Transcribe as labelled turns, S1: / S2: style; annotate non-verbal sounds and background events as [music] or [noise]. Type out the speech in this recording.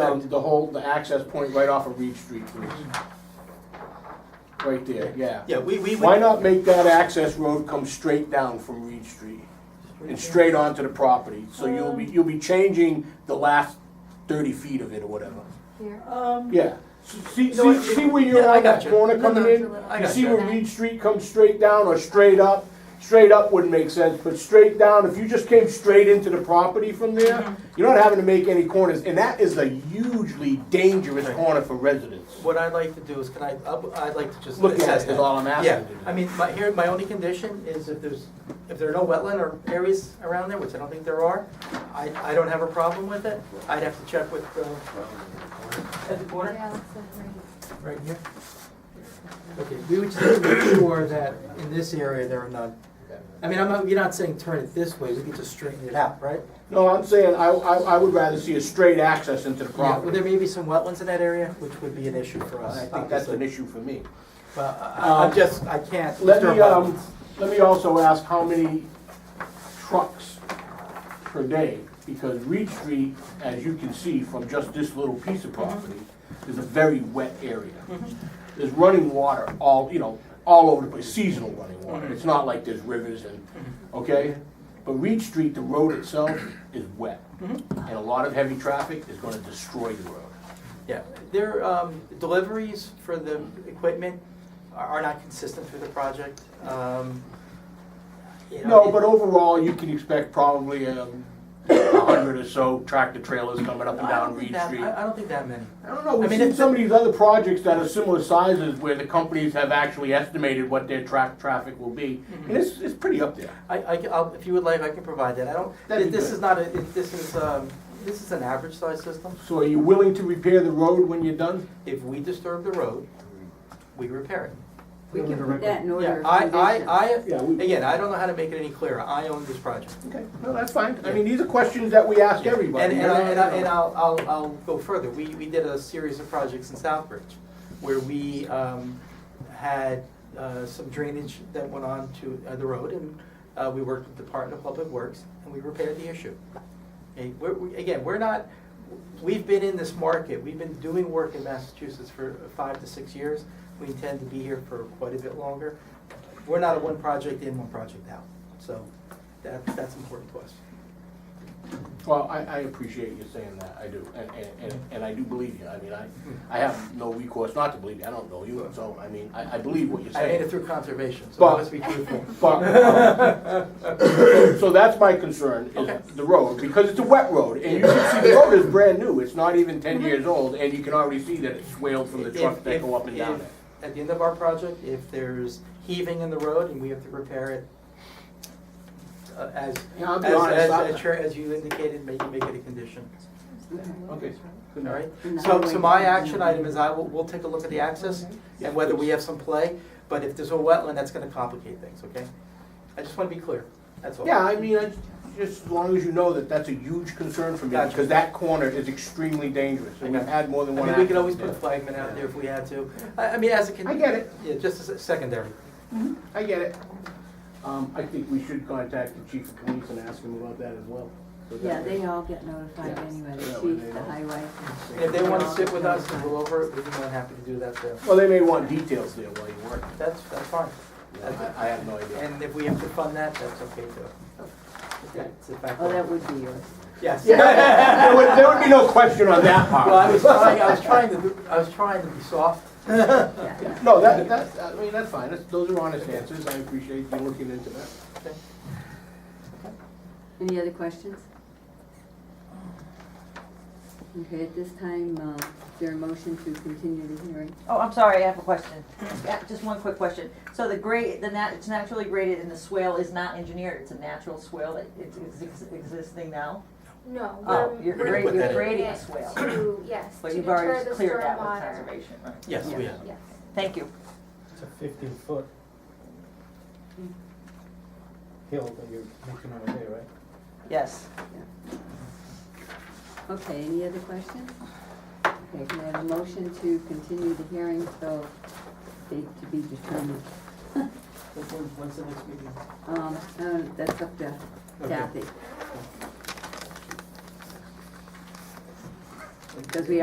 S1: down Um, the whole, the access point right off of Reed Street, please. Right there, yeah.
S2: Yeah, we, we. would-
S1: Why not make that access road come straight down from Reed Street? And straight onto the property, so you'll be, you'll be changing the last thirty feet of it or whatever.
S3: Here.
S4: Oh,
S2: Um,
S1: Yeah, see,
S2: No,
S1: see,
S2: it-
S1: see where
S2: yeah,
S1: you're
S2: I
S1: on that
S2: gotcha.
S1: corner
S3: No,
S1: coming
S3: no,
S1: in?
S3: it's a little-
S2: I
S1: You see
S2: gotcha.
S1: where Reed Street comes straight down or straight up? Straight up wouldn't make sense, but straight down, if you just came straight into the property from
S2: Mm-hmm.
S1: there, you're not having to make any corners, and that is a hugely dangerous
S2: Right.
S1: corner for residents.
S2: what I'd like to do is, can I, I'll- I'd like to just
S1: Look at
S2: assess
S1: it,
S2: that.
S1: is all I'm asking.
S2: Yeah, I mean, my, here, my only condition is if there's, if there are no wetland or areas around there, which I don't think there are, I, I don't have a problem with it. I'd have to check with, uh, at the corner,
S3: Yeah, it's a great-
S2: right here. Okay, we would just make sure that in this area there are none. I mean, I'm not, you're not saying turn it this way, we could just straighten it out, right?
S1: No, I'm saying, I, I, I would rather see a straight access into the
S2: Yeah, well, there
S1: property.
S2: may be some wetlands in that area, which would be an issue for us.
S1: I think that's an
S2: obviously.
S1: issue for me.
S2: But uh, um, I- I'm just, I can't.
S1: Let
S2: disturb
S1: me, um,
S2: wetlands.
S1: let me also ask how many trucks per day? Because Reed Street, as you can see from just this little piece of property, is a very wet area. There's running water all, you know, all over the place, seasonal running water. It's not like there's rivers and, okay? But Reed Street, the road itself is wet. And a lot of heavy traffic is gonna destroy the road.
S2: Yeah, their um, deliveries for the equipment are- are not consistent through the project. Um, you know,
S1: No,
S2: it-
S1: but overall, you can expect probably um, a hundred or so tractor trailers coming up and
S2: I don't
S1: down
S2: think
S1: Reed
S2: that-
S1: Street.
S2: I I don't think that many.
S1: I don't know,
S2: I
S1: we've
S2: mean,
S1: seen
S2: it's-
S1: some of these other projects that are similar sizes where the companies have actually estimated what their track, traffic will be.
S2: Mm-hmm.
S1: And it's, it's pretty up there.
S2: I, I, will if you would like, I can provide that. I don't,
S1: That'd be
S2: this
S1: good.
S2: is not a, it- this is, um, this is an average size system.
S1: So are you willing to repair the road when you're done?
S2: If we disturb the road, we repair it.
S5: We can put that in order
S2: Yeah,
S5: of
S2: I,
S5: conditions.
S2: I, I,
S1: Yeah, we-
S2: again, I don't know how to make it any clearer. I own this project.
S1: Okay, no, that's fine. I mean, these are questions that we ask everybody.
S2: And, and, I, and, I,
S1: You
S2: and
S1: know.
S2: I'll, I'll, I'll go further. We, we did a series of projects in Southbridge where we um, had uh, some drainage that went on to uh, the road, and uh, we worked with the Department of Public Works, and we repaired the issue. Okay, we're, we, again, we're not. We've been in this market. We've been doing work in Massachusetts for five to six years. We intend to be here for quite a bit longer. We're not a one project in, one project out. So that, that's important to us.
S1: Well, I, I appreciate you saying that, I do, and, and, and- and I do believe you, I mean, I, I have no recourse not to believe you, I don't know you, so, I mean, I, I believe what you're
S2: I made it
S1: saying.
S2: through conservation, so
S1: But-
S2: let's
S1: [laughs]
S2: be truthful.
S1: But, um, so- so that's my concern,
S2: Okay.
S1: is the road, because it's a wet road, and you can see the road is brand new, it's not even ten years old, and you can already see that it's swaled from the trucks
S2: Mm-hmm.
S1: that
S2: If-
S1: go up and
S2: if-
S1: down
S2: if-
S1: it.
S2: At the end of our project, if there's heaving in the road and we have to repair it, uh, as,
S1: Yeah, I'll
S2: as,
S1: be honest,
S2: as,
S1: I-
S2: as chair- as you indicated, make, make it a condition,
S1: Okay.
S2: all right?
S5: And the
S2: So, so my
S5: highway-
S2: action item is I will, we'll take a look at the access and whether we have some play, but if there's a wetland, that's gonna complicate things, okay? I just wanna be clear, that's all.
S1: Yeah, I mean, I, just as long as you know that that's a huge concern for me,
S2: Gotcha.
S1: because that corner is extremely dangerous, and we've had more
S2: I
S1: than one
S2: mean, we could
S1: accident
S2: always put a
S1: there.
S2: flagman out there if we had to, I, I mean, as a. con-
S1: I get it.
S2: Yeah, just as a secondary.
S1: I get it. Um, I think we should contact the chief of police and ask him about that as well. So that
S5: Yeah, they
S1: way-
S5: all get notified
S1: Yeah.
S5: anyway, the
S1: That way they
S5: chief, the
S1: know.
S5: highway.
S2: And if they want to sit with us and go over it, we'd be more than happy to do that too.
S1: Well, they may want details there while you're working.
S2: That's, that's fine.
S1: I, I have no idea.
S2: And if we have to fund that, that's okay too. That's a fact.
S5: Oh, that would be yours.
S2: Yes. [laughs]
S1: There would, there would be no question on that
S2: Well, I
S1: part.
S2: was trying, I was trying to, do- I was trying to be soft.
S5: Yeah, yeah.
S1: No, that, that's, I mean, that's fine, that's, those are honest answers, I appreciate you looking into that.
S5: Any other questions? Okay, at this time, uh, is there a motion to continue the hearing?
S4: Oh, I'm sorry, I have a question. Yeah, just one quick question. So the grade, the nat, it's naturally graded and the swale is not engineered, it's a natural swale that it's ex- ex- existing now?
S3: No.
S4: Oh,
S3: we're-
S4: you're
S3: we're
S2: gonna
S4: grading,
S2: put
S4: you're
S2: that in.
S4: grading a
S3: it
S4: swale,
S3: to- Yes.
S4: but
S3: to
S4: you've
S3: deter
S4: already
S3: the
S4: cleared that with
S3: stormwater.
S4: conservation, right?
S2: Yes, we have.
S3: Yes.
S4: Thank you.
S6: It's a fifteen foot hill that you're looking over there, right?
S4: Yes.
S5: Okay, any other questions? Okay, can I have a motion to continue the hearing till date to be
S2: [laughs]
S5: determined?
S2: When- when- When's the next meeting?
S5: Um, uh, that's up to Kathy,
S2: Okay.
S5: because we